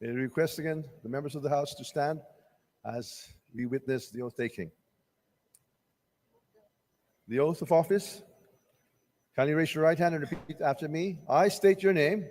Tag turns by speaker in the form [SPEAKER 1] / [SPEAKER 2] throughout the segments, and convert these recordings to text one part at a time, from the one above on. [SPEAKER 1] May I request again the members of the House to stand as we witness the oath taking. The oath of office. Kindly raise your right hand and repeat after me. I state your name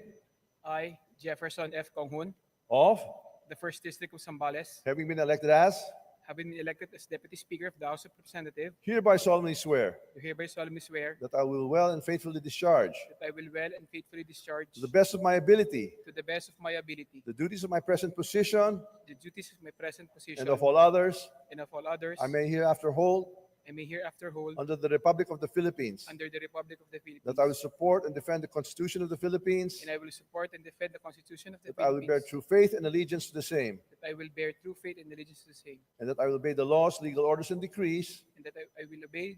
[SPEAKER 2] I, Jefferson F. Konghun,
[SPEAKER 1] of
[SPEAKER 2] the First District of Sambales,
[SPEAKER 1] having been elected as
[SPEAKER 2] having been elected as Deputy Speaker of the House of Representatives,
[SPEAKER 1] hereby solemnly swear
[SPEAKER 2] do hereby solemnly swear
[SPEAKER 1] that I will well and faithfully discharge
[SPEAKER 2] that I will well and faithfully discharge
[SPEAKER 1] to the best of my ability
[SPEAKER 2] to the best of my ability
[SPEAKER 1] the duties of my present position
[SPEAKER 2] the duties of my present position
[SPEAKER 1] and of all others
[SPEAKER 2] and of all others
[SPEAKER 1] I may hereafter hold
[SPEAKER 2] I may hereafter hold
[SPEAKER 1] under the Republic of the Philippines
[SPEAKER 2] under the Republic of the Philippines
[SPEAKER 1] that I will support and defend the Constitution of the Philippines
[SPEAKER 2] and I will support and defend the Constitution of the
[SPEAKER 1] That I will bear
[SPEAKER 2] Philippines
[SPEAKER 1] true faith and allegiance to the same,
[SPEAKER 2] that I will bear true faith and allegiance to the same
[SPEAKER 1] and that I will obey the laws, legal orders, and decrees
[SPEAKER 2] and that I, I will obey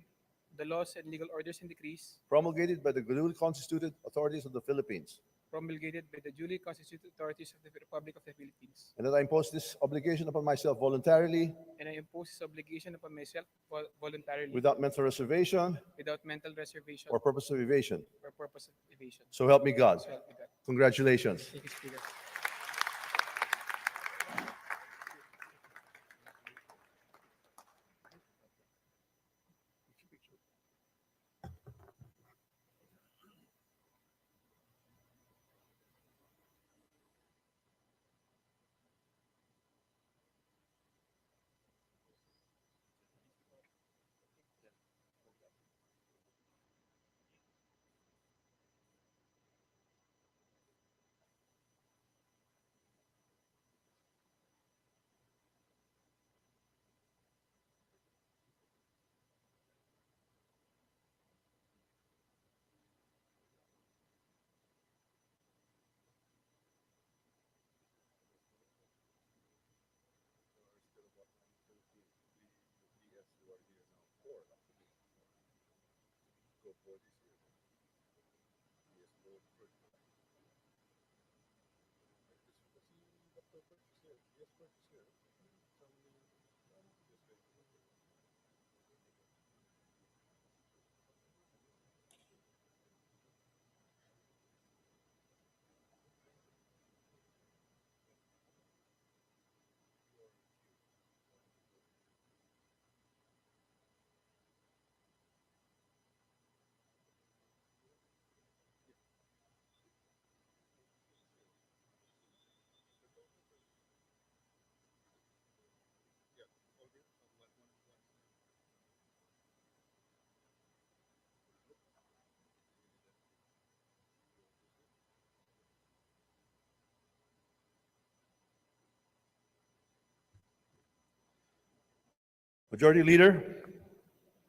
[SPEAKER 2] the laws and legal orders and decrees
[SPEAKER 1] promulgated by the duly constituted authorities of the Philippines,
[SPEAKER 2] promulgated by the duly constituted authorities of the Republic of the Philippines
[SPEAKER 1] and that I impose this obligation upon myself voluntarily,
[SPEAKER 2] and I impose this obligation upon myself vol- voluntarily
[SPEAKER 1] without mental reservation
[SPEAKER 2] without mental reservation
[SPEAKER 1] or purpose of evasion.
[SPEAKER 2] or purpose of evasion.
[SPEAKER 1] So help me God.
[SPEAKER 2] So help me God.
[SPEAKER 1] Congratulations.
[SPEAKER 2] Thank you, Speaker.
[SPEAKER 1] Majority Leader,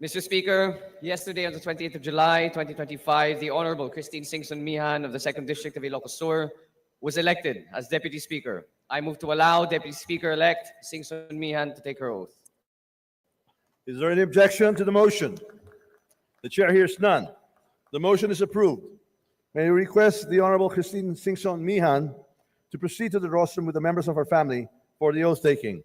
[SPEAKER 3] Mr. Speaker, yesterday on the 28th of July, 2025, the Honorable Christine Singson Mihan of the 2nd District of Ilocos Sur was elected as Deputy Speaker. I move to allow Deputy Speaker-elect Singson Mihan to take her oath.
[SPEAKER 1] is there any objection to the motion? The chair hears none. The motion is approved. May I request the Honorable Christine Singson Mihan to proceed to the rostrum with the members of her family for the oath taking.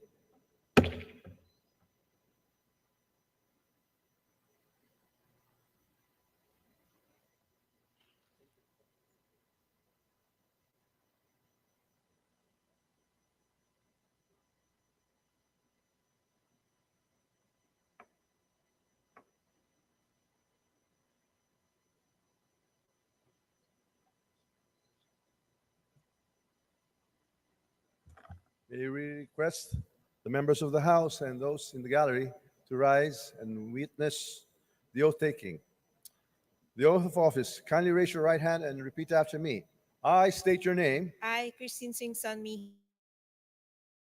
[SPEAKER 1] May we request the members of the House and those in the gallery to rise and witness the oath taking. The oath of office. Kindly raise your right hand and repeat after me. I state your name
[SPEAKER 4] I, Christine Singson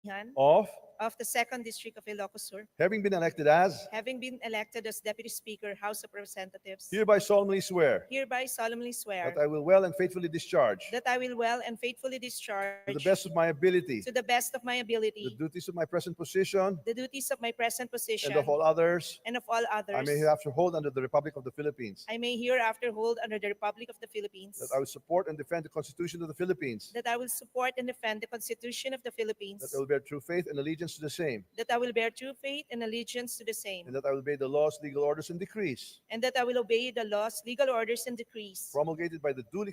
[SPEAKER 4] Mihan,
[SPEAKER 1] of
[SPEAKER 4] of the Second District of Ilocos Sur,
[SPEAKER 1] having been elected as
[SPEAKER 4] having been elected as Deputy Speaker, House of Representatives,
[SPEAKER 1] hereby solemnly swear
[SPEAKER 4] hereby solemnly swear
[SPEAKER 1] that I will well and faithfully discharge
[SPEAKER 4] that I will well and
[SPEAKER 1] to
[SPEAKER 4] faithfully
[SPEAKER 1] the
[SPEAKER 4] discharge
[SPEAKER 1] best of my ability
[SPEAKER 4] to the best of my
[SPEAKER 1] the
[SPEAKER 4] ability
[SPEAKER 1] duties of my present position
[SPEAKER 4] the duties of my present position
[SPEAKER 1] and of all others
[SPEAKER 4] and of all
[SPEAKER 1] I
[SPEAKER 4] others.
[SPEAKER 1] may hereafter hold under the Republic of the Philippines
[SPEAKER 4] I may hereafter hold under the Republic of the Philippines
[SPEAKER 1] that I will support and defend the Constitution of the Philippines
[SPEAKER 4] that I will support and defend the Constitution of the Philippines,
[SPEAKER 1] that I will bear true faith and allegiance to the same
[SPEAKER 4] that I will bear true faith and allegiance to the same,
[SPEAKER 1] And that I will obey the laws, legal orders, and decrees
[SPEAKER 4] and that I will obey the laws, legal orders, and decrees
[SPEAKER 1] promulgated by the duly